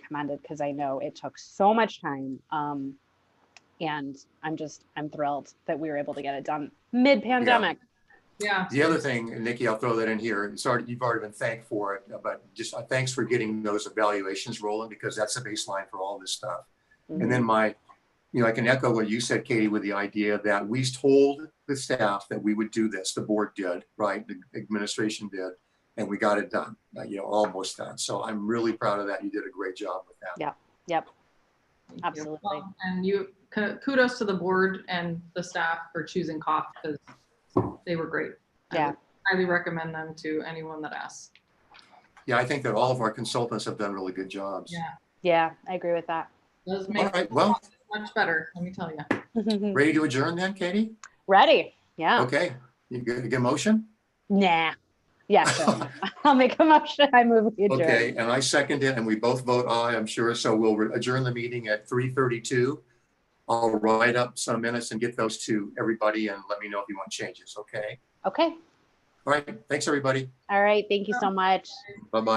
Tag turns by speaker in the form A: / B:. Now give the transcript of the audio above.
A: commended because I know it took so much time. Um, and I'm just, I'm thrilled that we were able to get it done mid-pandemic.
B: Yeah,
C: The other thing, and Nikki, I'll throw that in here, it's already, you've already been thanked for it, but just uh, thanks for getting those evaluations rolling because that's the baseline for all this stuff. And then my, you know, I can echo what you said, Katie, with the idea that we told the staff that we would do this, the board did, right? The administration did, and we got it done, uh, you know, almost done. So I'm really proud of that. You did a great job with that.
A: Yep,
B: thank you.
A: Absolutely.
B: Well, And you, k- kudos to the board and the staff for choosing COF because they were great. I
A: Yeah.
B: would Highly recommend them to anyone that asks.
C: Yeah, I think that all of our consultants have done really good jobs.
B: Yeah,
A: yeah, I agree with that.
B: those
C: All
B: make
C: right, well,
B: much better, let me tell you.
C: ready to adjourn then, Katie?
A: Ready? Yeah,
C: Okay, you get a good motion?
A: nah. Yeah, sure. I'll make a motion. I move we adjourn.
C: Okay, and I second it, and we both vote aye, I'm sure, so we'll adjourn the meeting at three thirty-two. I'll write up some minutes and get those to everybody and let me know if you want changes, okay?
A: Okay,
C: All right, thanks, everybody.
A: all right, thank you so much.
C: Bye-bye.